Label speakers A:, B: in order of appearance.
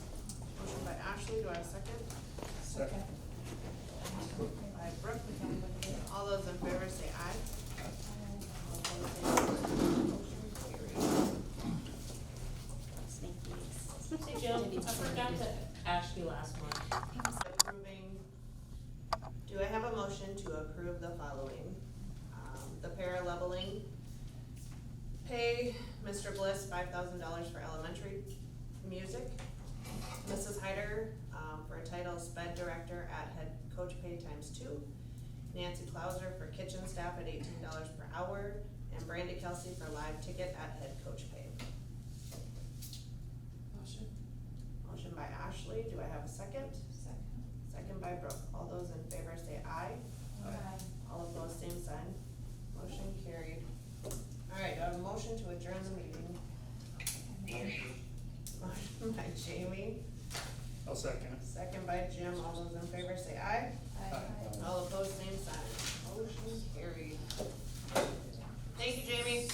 A: Lexley, do I have a second?
B: Second.
A: By Brooke. All those in favor say aye. All opposed, say no. Motion carries.
C: Hey Jill, I forgot to ask you last month.
A: Approving, do I have a motion to approve the following? Um, The paraleveling, pay Mr. Bliss five thousand dollars for elementary music. Mrs. Hyder, um, for a title sped director at head coach pay times two. Nancy Clauser for kitchen staff at eighteen dollars per hour, and Brandy Kelsey for live ticket at head coach pay.
C: Motion.
A: Motion by Ashley, do I have a second? Second. Second by Brooke, all those in favor say aye. All opposed, same sign. Motion carried. All right, do I have a motion to adjourn the meeting? Motion by Jamie,
B: I'll second it.
A: second by Jim, all those in favor say aye.
B: Aye.